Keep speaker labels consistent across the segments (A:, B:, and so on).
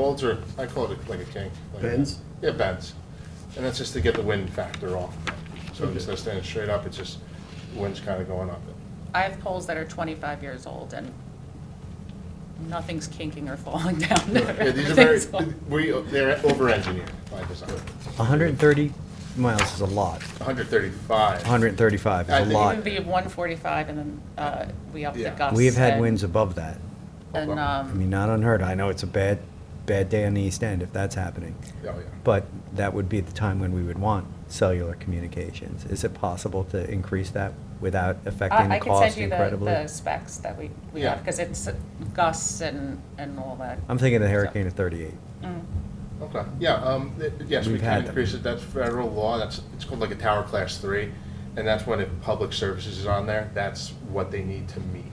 A: Molds are, I call it like a kink. like-
B: Bends?
A: Yeah, bends. And that's just to get the wind factor off. So instead of standing straight up, it's just, wind's kind of going up.
C: I have poles that are 25 years old and nothing's kinking or falling down.
A: Yeah, these are very,
C: Everything's all-
A: we, they're over-engineered by design.
D: 130 miles is a lot.
A: 135.
D: 135
A: I
D: is
A: think
D: a
A: it
D: lot.
C: Even be 145 and then uh, we up the
A: Yeah.
C: gusts.
D: We've had
C: and-
D: winds above that.
C: And,
D: I
C: um,
D: mean, not unheard. of. I know it's a bad, bad day on the East End if that's happening.
A: Oh, Yeah, yeah.
D: But that would be the time when we would want cellular communications. Is it possible to increase that without affecting
C: I
D: the
C: I can send
D: cost
C: you the-
D: incredibly?
C: the specs that we, we
A: Yeah.
C: have, because it's gusts and, and all that.
D: I'm thinking the hurricane of 38.
A: Okay, yeah, um, it- yes, we
D: We've had
A: can
D: them.
A: increase it, that's federal law, that's, it's called like a tower class three, and that's when if public services is on there, that's what they need to meet.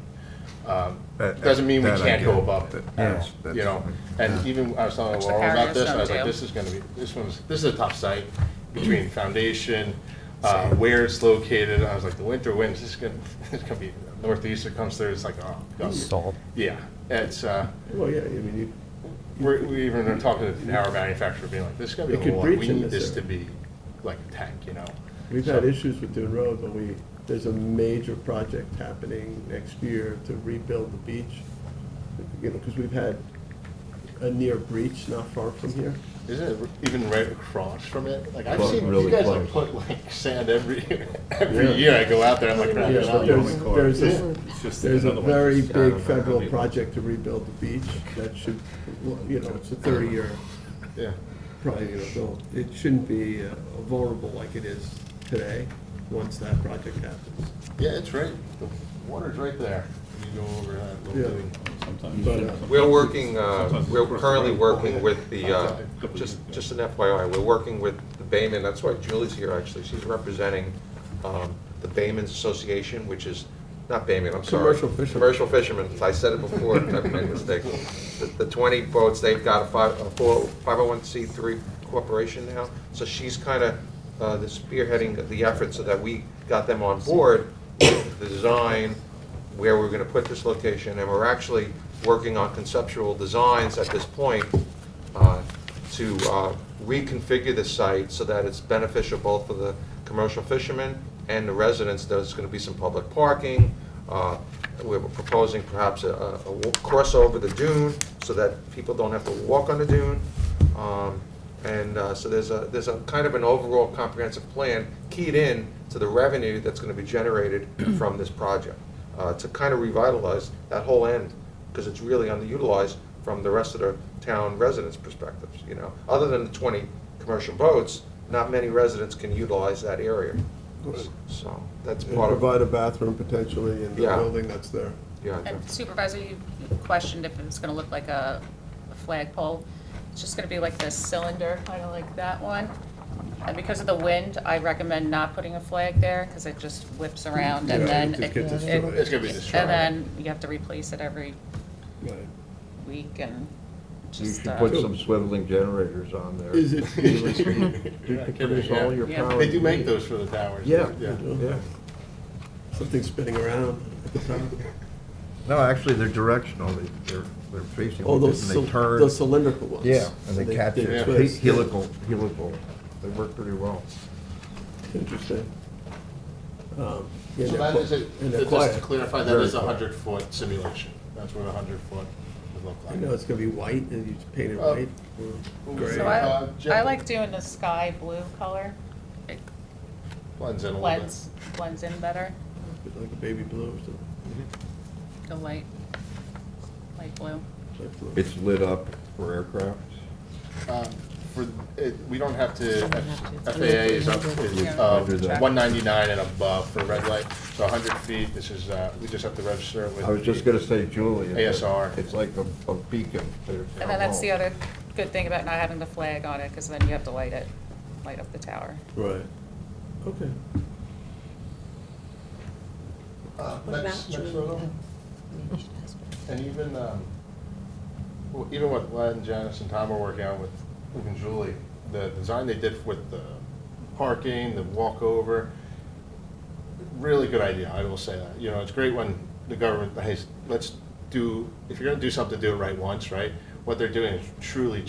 A: Um,
B: That-
A: Doesn't mean we
B: that I
A: can't go
B: get.
A: above it,
B: That-
A: at all,
B: that's-
A: you know,
B: that's-
A: and even, I was telling
C: Which the
A: Laurel about
C: carriers
A: this, and I was
C: don't
A: like,
C: do.
A: this is gonna be, this one's, this is a tough site, between foundation, uh, where it's located, I was like, the winter winds, this is gonna, it's gonna be northeast, it comes through, it's like, oh. God.
D: Salt.
A: Yeah, it's, uh,
B: Well, yeah, I mean, you,
A: we're, we even are talking to the power manufacturer, being like, this is gonna be
B: It
A: a
B: could
A: lot,
B: breach
A: we
B: in
A: need this
B: this
A: to
B: area.
A: be like a tank, you know?
B: we've
A: So-
B: had issues with Dune Road, but we, there's a major project happening next year to rebuild the beach. You know, because we've had a near breach not far from here.
A: Isn't it even right across from it? Like, I've
E: Well,
A: seen, you
E: really
A: guys like
E: close.
A: put like sand every,
B: Yeah.
A: every year I go out there, I'm like,
B: Yeah,
A: "Crap, it's
B: but
A: not
B: there's,
A: going."
B: there's
A: Yeah.
B: a,
E: It's just
B: there's a
E: another one.
B: very
E: Just gotta
B: big
E: remember
B: federal
E: people.
B: project to rebuild the beach that should, you know, it's a thirty-year
A: yeah,
B: probably gonna build. It shouldn't be uh, vulnerable like it is today, once that project happens.
A: yeah, it's right, the water's right there, you go over that little
B: Yeah.
A: thing.
B: But, uh,
F: We're working, uh, we're currently working with the, uh, just, just an FYI, we're working with the Baymen, that's why Julie's here, actually, she's representing um, the Baymen's Association, which is, not Baymen, I'm sorry.
B: Commercial fishermen.
F: Commercial fishermen, I said it before, I made a mistake. The- The 20 boats, they've got a five- oh a four- 501c3 corporation now, so she's kind of spearheading the effort so that we got them on board, with the design, where we're going to put this location, and we're actually working on conceptual designs at this point uh, to uh, reconfigure the site so that it's beneficial both for the commercial fishermen and the residents. There's going to be some public parking. Uh, We're proposing perhaps a- a a wa- crossover the dune so that people don't have to walk on the dune. Um, And uh, so there's a, there's a kind of an overall comprehensive plan keyed in to the revenue that's going to be generated from this project uh, to kind of revitalize that whole end, because it's really underutilized from the rest of the town residents' perspectives, you know? Other than the 20 commercial boats, not many residents can utilize that area. So that's
B: And
F: part of,
B: provide a bathroom potentially in the
F: Yeah.
B: building that's there.
F: yeah.
C: And Supervisor, you questioned if it was going to look like a a flagpole. It's just going to be like this cylinder, kind of like that one. And because of the wind, I recommend not putting a flag there because it just whips around and
B: Yeah,
C: then.
B: it just
C: it-
B: gets
C: it-
B: destroyed.
A: It's gonna be destroyed.
C: And then you have to replace it every week and
E: You
C: just.
E: should
C: uh,
E: put some swiveling generators on there.
B: Is it-
E: You could produce all your
C: Yeah.
E: power.
A: They do
E: you
A: make
E: need.
A: those for the towers.
E: Yeah,
B: do.
E: yeah.
B: Something spinning around at the top.
E: No, actually, they're directional. They- They're, they're facing,
B: Oh,
E: like
B: those,
E: this and
B: cyl-
E: they turn.
B: those cylindrical ones.
E: Yeah, and they catch
B: they
E: it. He-
B: twist.
E: Helical, helical. They work pretty well.
B: Interesting. Um, yeah,
A: So
B: they're
A: that
B: qui-
A: is, a-
B: And they're
A: just to
B: quiet.
A: clarify, that
E: Very
A: is a
E: quiet.
A: 100-foot simulation, that's what a 100-foot would look
B: I
A: like.
B: know it's gonna be white, and you just paint it
A: Uh,
B: white. or
A: what was
B: gray.
C: So
A: Uh, Jen-
C: I, I like doing the sky blue color. It
A: Blends in a little bit.
C: blends, blends in better,
B: Like a baby blue or something.
C: the light, light blue.
B: like blue.
E: It's lit up for aircraft.
A: Um, For, it- we don't have to,
C: have to.
A: FAA is up, is
C: Yeah.
A: uh,
E: Under that.
A: 199 and above for red light, so 100 feet, this is, uh, we just have to register it with.
E: I was just gonna say, Julie. it's a-
A: ASR.
E: It's like a a beacon.
C: And then that's the other good thing about not having the flag on it, because then you have to light it, light up the tower.
B: Right. Okay.
A: Uh,
G: What
A: next-
G: about you?
A: next photo. And even, um, well, even what Len, and Janice, and Tom are working on with, even Julie, the design they did with the parking, the walkover, really good idea, I will say that. You know, it's great when the government, hey, let's do, if you're gonna do something, do it right once, right? what they're doing is truly